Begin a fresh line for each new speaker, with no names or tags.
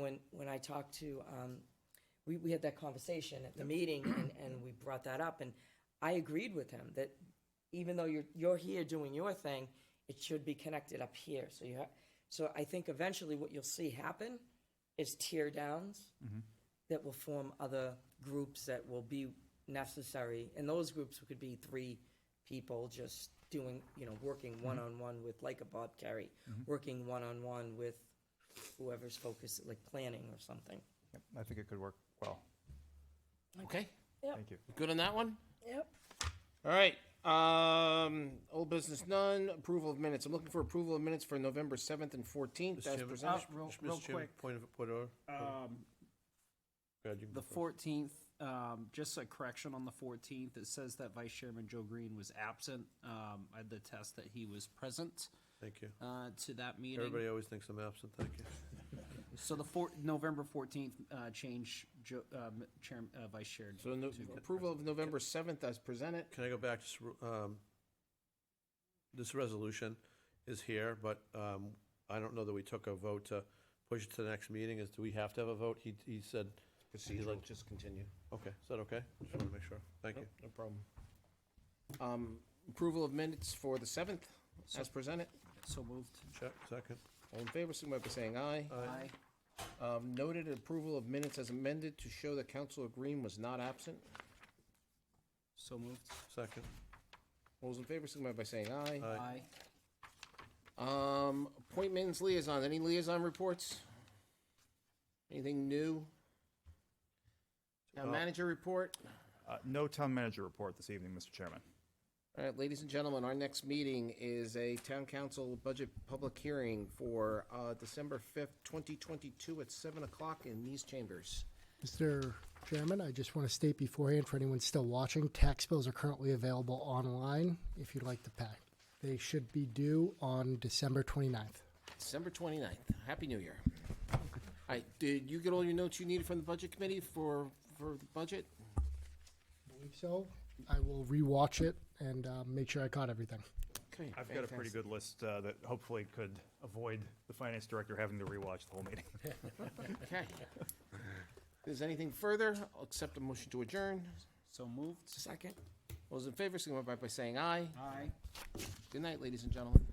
when, when I talked to, um, we, we had that conversation at the meeting and, and we brought that up and I agreed with him that even though you're, you're here doing your thing, it should be connected up here. So you have, so I think eventually what you'll see happen is tear downs that will form other groups that will be necessary. And those groups could be three people just doing, you know, working one-on-one with, like a Bob Carey, working one-on-one with whoever's focused, like planning or something.
Yep, I think it could work well.
Okay,
Thank you.
good on that one?
Yep.
All right, um, old business none, approval of minutes. I'm looking for approval of minutes for November seventh and fourteenth
Mr.
as
Chairman,
presented.
Mr.
Uh, real-
Mr.
real
Chairman,
quick. Um,
Point of, point of. Go ahead, you can
The
go first.
fourteenth, um, just a correction on the fourteenth, it says that Vice Chairman Joe Green was absent. Um, I had to test that he was present,
Thank you.
uh, to that meeting.
Everybody always thinks I'm absent, thank you.
So the four, November fourteenth, uh, change Joe, um, Chair, uh, Vice Chair.
So no- approval of November seventh as presented.
Can I go back to, s- um, this resolution is here, but, um, I don't know that we took a vote to push it to the next meeting. Is, do we have to have a vote? He, he said, Procedural, like-
just continue.
okay, is that okay? Just want to make sure. Thank you.
No problem. Um, approval of minutes for the seventh as presented.
So moved.
Check, second.
All in favor, signify by saying aye.
Aye.
Um, noted approval of minutes as amended to show that Councilor Green was not absent.
So moved.
Second,
All those in favor, signify by saying aye.
Aye.
Aye.
Um, appointments, liaison, any liaison reports? Anything new? Town manager report?
Uh, No town manager report this evening, Mr. Chairman.
All right, ladies and gentlemen, our next meeting is a town council budget public hearing for, uh, December fifth, twenty twenty-two at seven o'clock in these chambers.
Mr. Chairman, I just want to state beforehand for anyone still watching, tax bills are currently available online if you'd like to pay. They should be due on December 29th.
December 29th. Happy New Year. All right, did you get all your notes you needed from the budget committee for, for the budget?
I believe so. I will rewatch it and uh, make sure I caught everything.
Okay,
I've got a pretty
fantastic.
good list uh, that hopefully could avoid the finance director having to rewatch the whole meeting.
Okay. Is anything further? I'll accept a motion to adjourn.
So moved.
Second?
Those in favor, signify by saying aye.
Aye.
Good night, ladies and gentlemen.